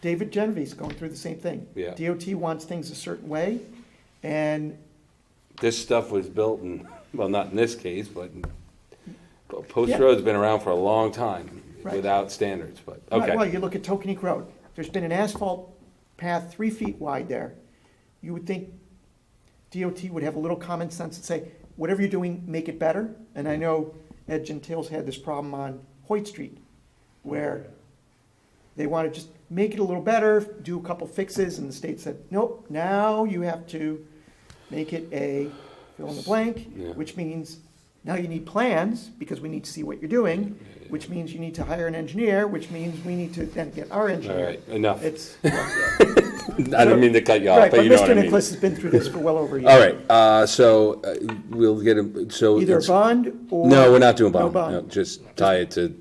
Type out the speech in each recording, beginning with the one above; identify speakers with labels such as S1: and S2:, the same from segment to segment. S1: David Genevieve's going through the same thing.
S2: Yeah.
S1: DOT wants things a certain way, and
S2: This stuff was built in, well, not in this case, but but Post
S1: Yeah.
S2: Road's been around for a long time
S1: Right.
S2: without standards, but,
S1: Right, Well,
S2: okay.
S1: you look at Tokenique Road, there's been an asphalt path three feet wide there. You would think DOT would have a little common sense and say, whatever you're doing, make it better. And I know Ed Gentile's had this problem on Hoyt Street, where they want to just make it a little better, do a couple fixes, and the state said, nope, now you have to make it a fill in the blank,
S2: Yeah.
S1: which means now you need plans, because we need to see what you're doing, which means you need to hire an engineer, which means we need to then get our
S2: All
S1: engineer.
S2: right, enough.
S1: It's,
S2: I didn't mean to cut you off,
S1: right,
S2: but
S1: but
S2: you know what I
S1: Mr.
S2: mean.
S1: Nicholas has been through this for well over a year.
S2: All right, uh, so uh, we'll get, a- so.
S1: Either a
S2: it's-
S1: bond or.
S2: No, we're not doing bond.
S1: No bond.
S2: Just tie it to,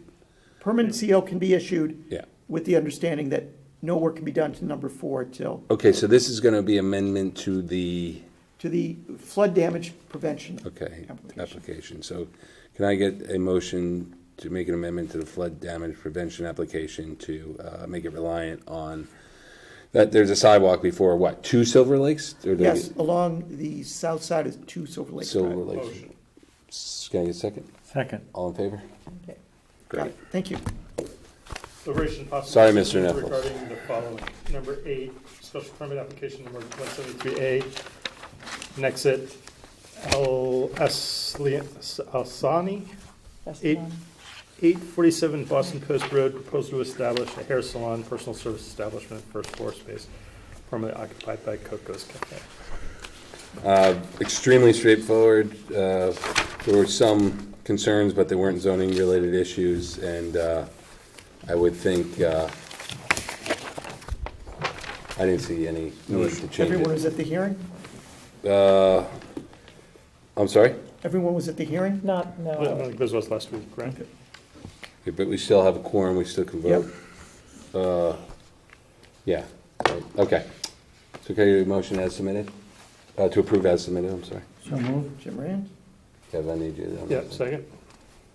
S1: Permanent CO can be issued
S2: yeah.
S1: with the understanding that no work can be done to number four till,
S2: Okay, so this is gonna be amendment to the,
S1: to the flood damage prevention.
S2: okay,
S1: Application.
S2: application. So can I get a motion to make an amendment to the flood damage prevention application to uh, make it reliant on, that there's a sidewalk before, what, two Silver Lakes? Or do I
S1: Yes,
S2: get-
S1: along the south side of Two Silver Lake Drive.
S2: Silver Lakes. S- Can I get a second?
S3: Second.
S2: All in favor?
S1: Okay, got
S2: Great.
S1: it. Thank you.
S4: Deliberation and possible.
S2: Sorry, Mr.
S4: decisions
S2: Nichols.
S4: Regarding the following, number eight, special permit application number one seventy-three A, Nexit L. S. Li- S- Alsani, eight, eight forty-seven Boston Post Road, proposed to establish a hair salon, personal service establishment, first floor space, formerly occupied by Coco's Cafe.
S2: extremely straightforward. Uh, There were some concerns, but they weren't zoning-related issues, and uh, I would think, uh, I didn't see any need to change
S1: Everyone
S2: it.
S1: was at the hearing?
S2: Uh, I'm sorry?
S1: Everyone was at the hearing?
S5: Not, no.
S4: Well, I think This was last week, right?
S2: Yeah, But we still have a quorum, we still can vote. Uh, Yeah, right, okay. So can I get a motion as submitted? Uh, To approve as submitted, I'm sorry.
S3: So moved.
S1: Jim Rand,
S2: Kev, I need you. on
S4: Yeah,
S2: that.
S4: second.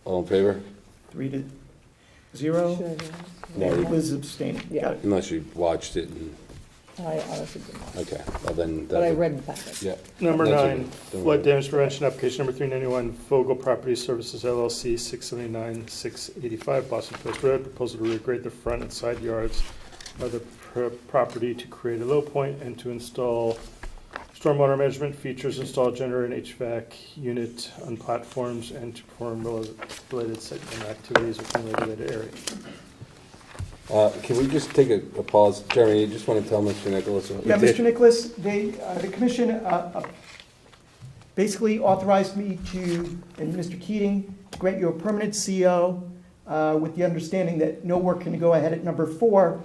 S2: All in favor?
S1: three to zero.
S5: Should
S2: No, you-
S1: Liz abstaining. Got it.
S2: Unless you watched it, and-
S5: I I honestly did not,
S2: okay, well then.
S5: but I
S2: that's-
S5: read the packet.
S2: Yeah.
S4: Number
S2: That's
S4: nine,
S2: okay. Don't
S4: flood
S2: worry.
S4: damage prevention application number three ninety-one, Vogel Property Services LLC, six seventy-nine, six eighty-five Boston Post Road, proposal to regrade the front and side yards of the pro- property to create a low point and to install stormwater management features, install generator and HVAC unit on platforms, and to perform rel- related segment activities within regulated area.
S2: Uh, Can we just take a a pause? Jeremy, you just want to tell Mr. Nicholas? what we
S1: Yeah,
S2: did?
S1: Mr. Nicholas, they, uh, the commission uh, uh, basically authorized me to, and Mr. Keating, to grant you a permanent CO uh, with the understanding that no work can go ahead at number four.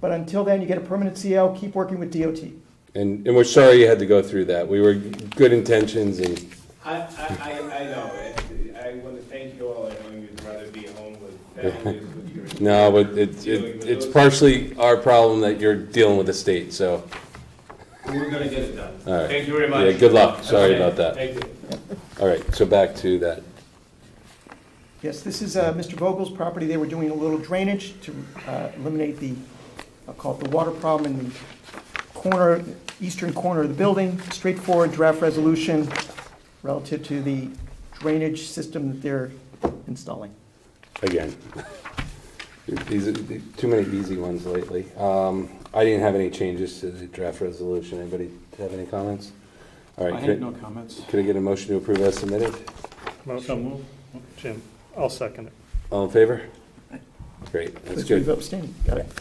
S1: But until then, you get a permanent CO, keep working with DOT.
S2: And, and we're sorry you had to go through that. We were good intentions and,
S6: I, I, I- I know, it. I want to thank you all, I know you'd rather be home with families with your.
S2: no, but it's, it- it's partially our problem that you're dealing with the state, so.
S6: We're gonna get it done.
S2: All right.
S6: Thank you very much.
S2: Yeah, good luck. Sorry about that.
S6: Thank you.
S2: All right, so back to that.
S1: Yes, this is uh, Mr. Vogel's property. They were doing a little drainage to uh, eliminate the, I'll call it the water problem in the corner, eastern corner of the building. Straightforward draft resolution relative to the drainage system that they're installing.
S2: again. These are too many easy ones lately. Um, I didn't have any changes to the draft resolution. Anybody have any comments? All right.
S3: I
S2: could-
S3: had no comments.
S2: Could I get a motion to approve as submitted?
S4: Motion, Jim, I'll second it.
S2: All in favor? Great, that's
S1: Please leave
S2: good.
S1: abstaining. Got it.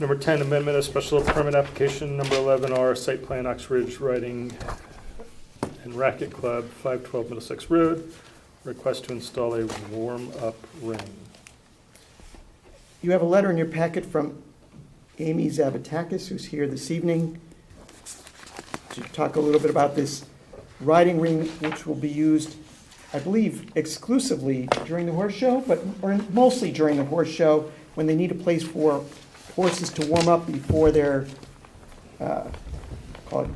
S4: Number 10, amendment of special permit application number 11R, site plan Oxbridge Riding and Racket Club, 512 Middlesex Road, request to install a warm-up ring.
S1: You have a letter in your packet from Amy Zavatakis, who's here this evening, to talk a little bit about this riding ring, which will be used, I believe, exclusively during the horse show, but, or mostly during the horse show, when they need a place for horses to warm up before their, uh, call it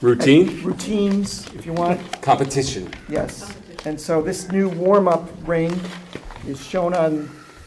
S2: Routine?
S1: routines, if you want.
S2: Competition.
S1: Yes, and so this new warm-up ring is shown on